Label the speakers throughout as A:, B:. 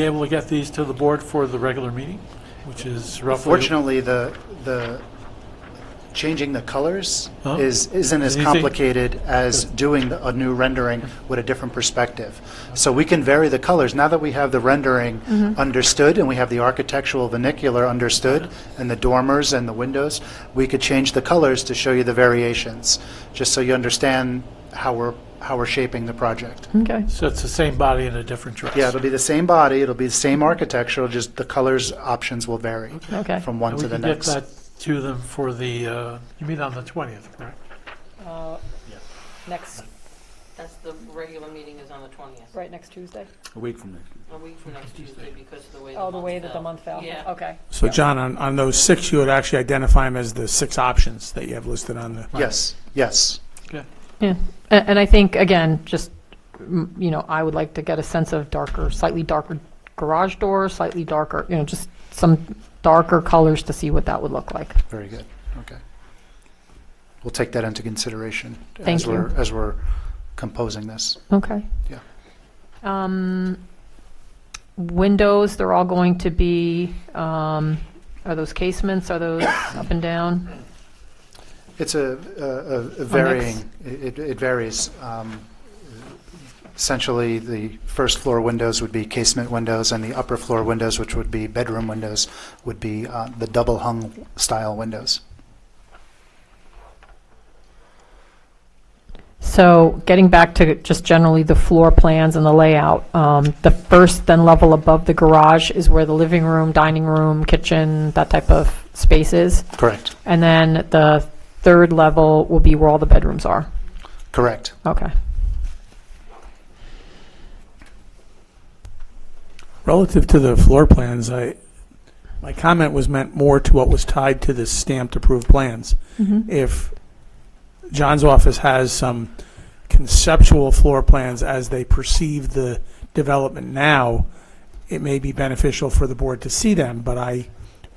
A: be able to get these to the board for the regular meeting, which is roughly...
B: Fortunately, the, the, changing the colors
A: Huh?
B: is, isn't as
A: Anything-
B: complicated as doing the- a new rendering with a different perspective. So we can vary the colors. Now that we have the rendering
A: Mm-hmm.
B: understood, and we have the architectural vernacular understood,
A: Uh-huh.
B: and the dormers and the windows, we could change the colors to show you the variations, just so you understand how we're, how we're shaping the project.
C: Okay.
A: So it's the same body in a different dress.
B: Yeah, it'll be the same body, it'll be the same architecture, just the colors options will vary
C: Okay.
B: from one
A: And
B: to the next.
A: We can get that to them for the, uh, you meet on the 20th, correct?
C: Uh, Next,
D: That's the regular meeting is on the twentieth,
C: right next Tuesday?
E: A week from next.
D: a week from next Tuesday because of the way the month fell.
C: Oh, the way that the month fell?
D: Yeah.
C: Okay.
F: So John, on, on those six, you would actually identify them as the six options that you have listed on the.
B: Yes, yes.
C: Yeah, and, and I think, again, just, m- you know, I would like to get a sense of darker, slightly darker garage doors, slightly darker, you know, just some darker colors to see what that would look like.
B: Very good, okay. We'll take that into consideration.
C: Thank
B: As
C: you.
B: we're, as we're composing this.
C: Okay.
B: Yeah.
C: Um, windows, they're all going to be, um, are those casements, are those up and down?
B: It's a- a a- a varying, it it varies. Um, Essentially, the first floor windows would be casement windows, and the upper floor windows, which would be bedroom windows, would be uh, the double hung style windows.
C: So getting back to just generally the floor plans and the layout, um, the first then level above the garage is where the living room, dining room, kitchen, that type of space is.
B: Correct.
C: And then the third level will be where all the bedrooms are.
B: Correct.
C: Okay.
F: Relative to the floor plans, I, my comment was meant more to what was tied to the stamped approved plans. If John's office has some conceptual floor plans as they perceive the development now, it may be beneficial for the board to see them, but I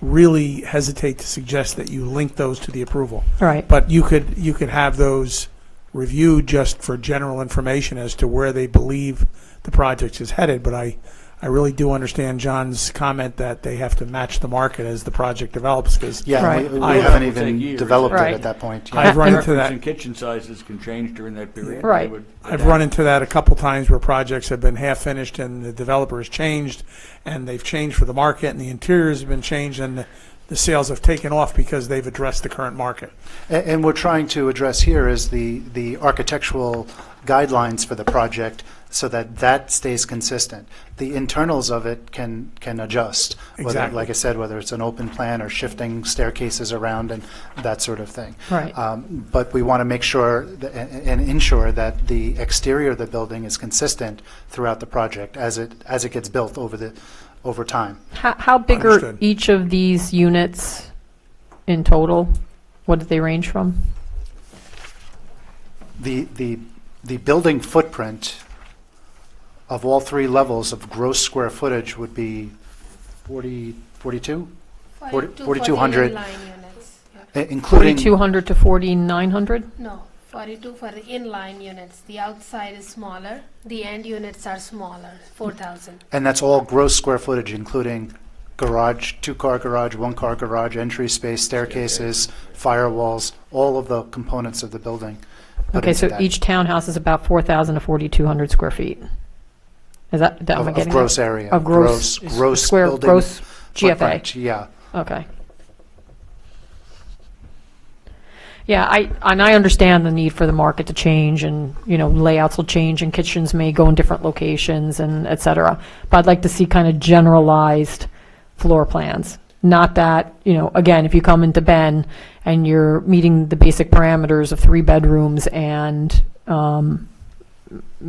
F: really hesitate to suggest that you link those to the approval.
C: All right.
F: But you could, you could have those reviewed just for general information as to where they believe the project is headed. But I, I really do understand John's comment that they have to match the market as the project develops, because
B: Yeah, we-
C: Right.
B: we
F: I-
B: haven't
E: It would take
B: even
E: years.
B: developed it
C: Right.
B: at that point. yeah.
F: I've run into
E: Preference
F: that,
E: and kitchen sizes can change during that period. and they
C: Right.
E: would
F: I've
E: adapt.
F: run into that a couple times where projects have been half finished and the developer has changed, and they've changed for the market, and the interiors have been changed, and the- the sales have taken off because they've addressed the current market.
B: A- And we're trying to address here is the, the architectural guidelines for the project so that that stays consistent. The internals of it can, can adjust. whether-
F: Exactly.
B: Like I said, whether it's an open plan or shifting staircases around and that sort of thing.
C: Right.
B: Um, But we want to make sure tha- a- a- and ensure that the exterior of the building is consistent throughout the project as it, as it gets built over the, over time.
C: How, how big are
F: Understood.
C: each of these units in total? What do they range from?
B: The, the, the building footprint of all three levels of gross square footage would be 40, 42?
G: 42
B: 4200.
G: 40 inline units. yeah.
B: I- Eh, Including,
C: 4,200 to 4,900?
G: No, 42 for the inline units. The outside is smaller. The end units are smaller, 4,000.
B: and that's all gross square footage, including garage, two-car garage, one-car garage, entry space, staircases, firewalls, all of the components of the building. put
C: Okay,
B: into
C: so
B: that.
C: each townhouse is about 4,000 to 4,200 square feet. Is that, that-
B: Of
C: am I
B: of
C: getting that?
B: gross area.
C: Of gross-
B: Gross
C: Square-
B: building.
C: Gross GFA?
B: footprint, Yeah.
C: Okay. Yeah, I, and I understand the need for the market to change and, you know, layouts will change and kitchens may go in different locations and et cetera. But I'd like to see kind of generalized floor plans. Not that, you know, again, if you come into Ben and you're meeting the basic parameters of three bedrooms and, um, you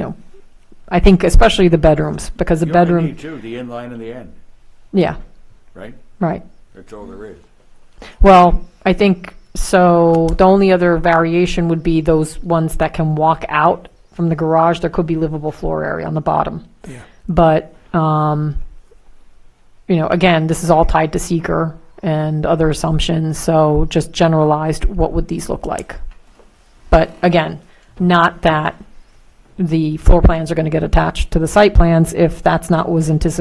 C: know, I think especially the bedrooms, because the
E: You only
C: bedroom,
E: need two, the inline and the end,
C: yeah,
E: right?
C: right.
E: That's all there is.
C: Well, I think, so the only other variation would be those ones that can walk out from the garage. There could be livable floor area on the bottom.
F: Yeah.
C: But, um, you know, again, this is all tied to seeker and other assumptions, so just generalized, what would these look like? But again, not that the floor plans are going to get attached to the site plans if that's not what was anticipated